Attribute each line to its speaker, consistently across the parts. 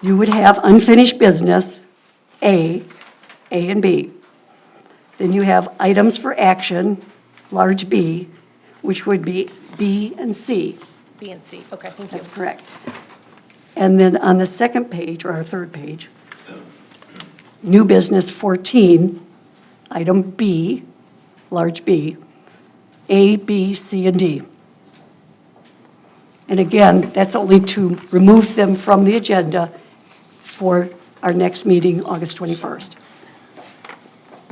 Speaker 1: you would have unfinished business, A, A and B. Then you have items for action, large B, which would be B and C.
Speaker 2: B and C, okay, thank you.
Speaker 1: That's correct. And then on the second page, or our third page, new business 14, item B, large B, A, B, C, and D. And again, that's only to remove them from the agenda for our next meeting, August 21st.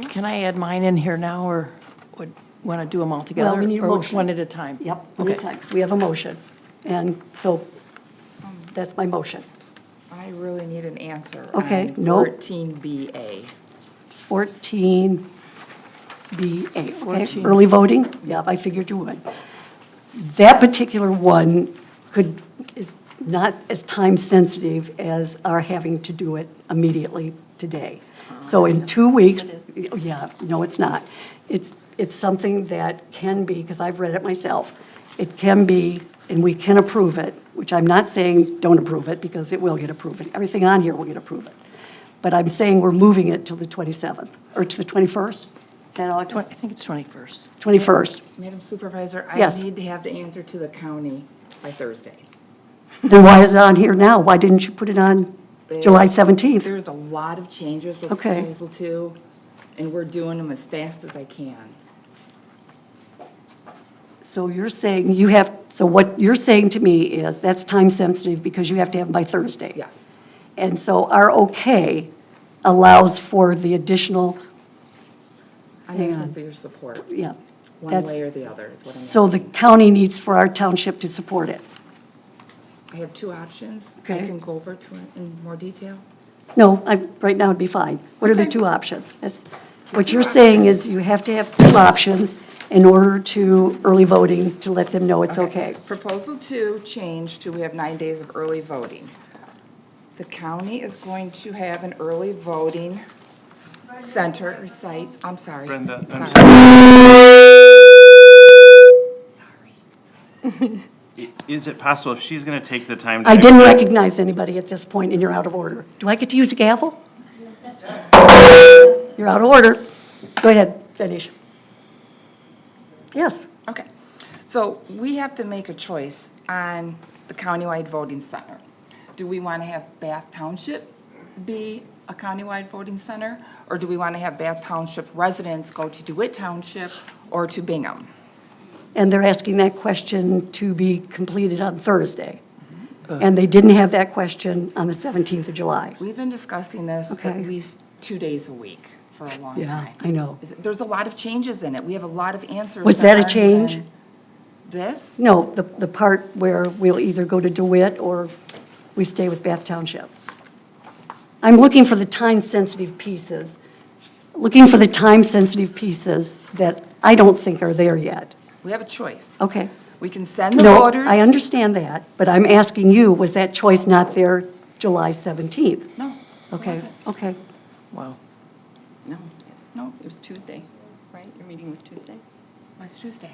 Speaker 3: Can I add mine in here now, or would, want to do them all together?
Speaker 1: Well, we need a
Speaker 3: Or
Speaker 1: motion.
Speaker 3: one at a time?
Speaker 1: Yep, one
Speaker 3: Okay.
Speaker 1: at a time, 'cause we have a motion. And so that's my motion.
Speaker 4: I really need an answer.
Speaker 1: Okay,
Speaker 4: on
Speaker 1: nope.
Speaker 4: 14BA.
Speaker 1: 14BA, okay,
Speaker 3: 14.
Speaker 1: early voting? Yep, I figured you would. That particular one could, is not as time-sensitive as our having to do it immediately today. So in two weeks, yeah, no, it's not. It's, it's something that can be, because I've read it myself, it can be, and we can approve it, which I'm not saying don't approve it, because it will get approved. Everything on here will get approved. But I'm saying we're moving it till the 27th, or to the 21st? Is that
Speaker 3: Twen- I
Speaker 1: August?
Speaker 3: think it's 21st.
Speaker 1: 21st.
Speaker 4: Madam Supervisor, I
Speaker 1: Yes.
Speaker 4: need to have the answer to the county by Thursday.
Speaker 1: Then why is it on here now? Why didn't you put it on July 17th?
Speaker 4: There's a lot of changes with
Speaker 1: Okay.
Speaker 4: proposal two, and we're doing them as fast as I can.
Speaker 1: So you're saying you have, so what you're saying to me is that's time-sensitive because you have to have it by Thursday.
Speaker 4: Yes.
Speaker 1: And so our okay allows for the additional,
Speaker 4: I'm asking for your support,
Speaker 1: yeah.
Speaker 4: one
Speaker 1: that's-
Speaker 4: way or the other is what I'm
Speaker 1: So the
Speaker 4: asking.
Speaker 1: county needs for our township to support it.
Speaker 4: I have two options. I
Speaker 1: Okay.
Speaker 4: can go over to it in more detail.
Speaker 1: No, I, right now it'd be fine. What are the
Speaker 4: Okay.
Speaker 1: two options? That's, what you're saying is you have to have two options in order to early voting to let them know it's okay.
Speaker 4: Proposal two changed to we have nine days of early voting. The county is going to have an early voting center or sites, I'm sorry.
Speaker 5: Brenda, I'm
Speaker 4: Sorry.
Speaker 5: I- Is it possible, if she's going to take the time to...
Speaker 1: I didn't recognize anybody at this point, and you're out of order. Do I get to use a gavel? You're out of order. Go ahead, finish. Yes,
Speaker 4: Okay, so we have to make a choice on the countywide voting center. Do we want to have Bath Township be a countywide voting center? Or do we want to have Bath Township residents go to DeWitt Township or to Bingham?
Speaker 1: and they're asking that question to be completed on Thursday. And they didn't have that question on the 17th of July.
Speaker 4: We've been discussing this at
Speaker 1: Okay.
Speaker 4: least two days a week for a long time.
Speaker 1: Yeah, I know.
Speaker 4: Is it- There's a lot of changes in it. We have a lot of answers.
Speaker 1: Was that a
Speaker 4: aren't
Speaker 1: change?
Speaker 4: even This?
Speaker 1: No, the, the part where we'll either go to DeWitt or we stay with Bath Township. I'm looking for the time-sensitive pieces, looking for the time-sensitive pieces that I don't think are there yet.
Speaker 4: We have a choice.
Speaker 1: Okay.
Speaker 4: We can send the
Speaker 1: Oh. No,
Speaker 4: voters.
Speaker 1: I understand that, but I'm asking you, was that choice not there July 17th?
Speaker 4: No. it
Speaker 1: Okay,
Speaker 4: wasn't.
Speaker 1: okay.
Speaker 3: Wow.
Speaker 4: No, no,
Speaker 6: It was Tuesday, right? Your meeting was Tuesday?
Speaker 4: it's Tuesday.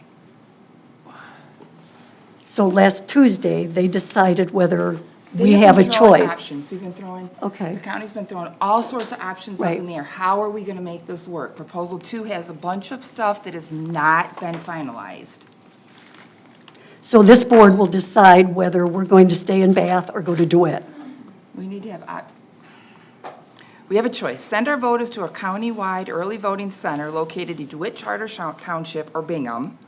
Speaker 1: So last Tuesday, they decided whether we
Speaker 4: They've
Speaker 1: have a
Speaker 4: been throwing
Speaker 1: choice.
Speaker 4: Options, we've been throwing.
Speaker 1: Okay.
Speaker 4: The county's been throwing all sorts of options up
Speaker 1: Right.
Speaker 4: in the air. How are we gonna make this work? Proposal two has a bunch of stuff that has not been finalized.
Speaker 1: So this board will decide whether we're going to stay in Bath or go to DeWitt.
Speaker 4: We need to have, op- we have a choice. Send our voters to a countywide early voting center located in DeWitt Charter Shou- Township or Bingham,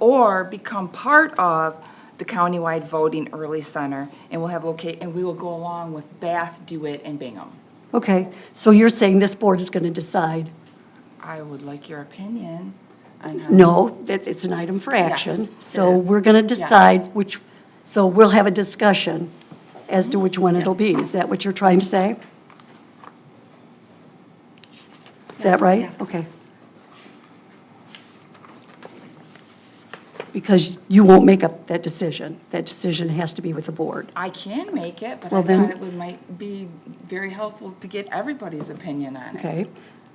Speaker 4: or become part of the countywide voting early center, and we'll have locate, and we will go along with Bath, DeWitt, and Bingham.
Speaker 1: Okay, so you're saying this board is going to decide,
Speaker 4: I would like your opinion on how.
Speaker 1: no, that it's an item for action?
Speaker 4: it
Speaker 1: So
Speaker 4: is.
Speaker 1: we're going to
Speaker 4: Yes.
Speaker 1: decide which, so we'll have a discussion as to which one it'll be. Is that what you're trying to say? Is that right?
Speaker 4: yes,
Speaker 1: Okay. Because you won't make up that decision. That decision has to be with the board.
Speaker 4: I can make it, but
Speaker 1: Well,
Speaker 4: I
Speaker 1: then-
Speaker 4: thought it would might be very helpful to get everybody's opinion on it.
Speaker 1: Okay,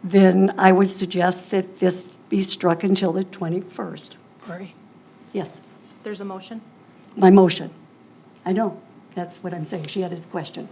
Speaker 1: then I would suggest that this be struck until the 21st.
Speaker 3: Lori?
Speaker 1: Yes,
Speaker 2: There's a motion?
Speaker 1: my motion. I know, that's what I'm saying. She had a question.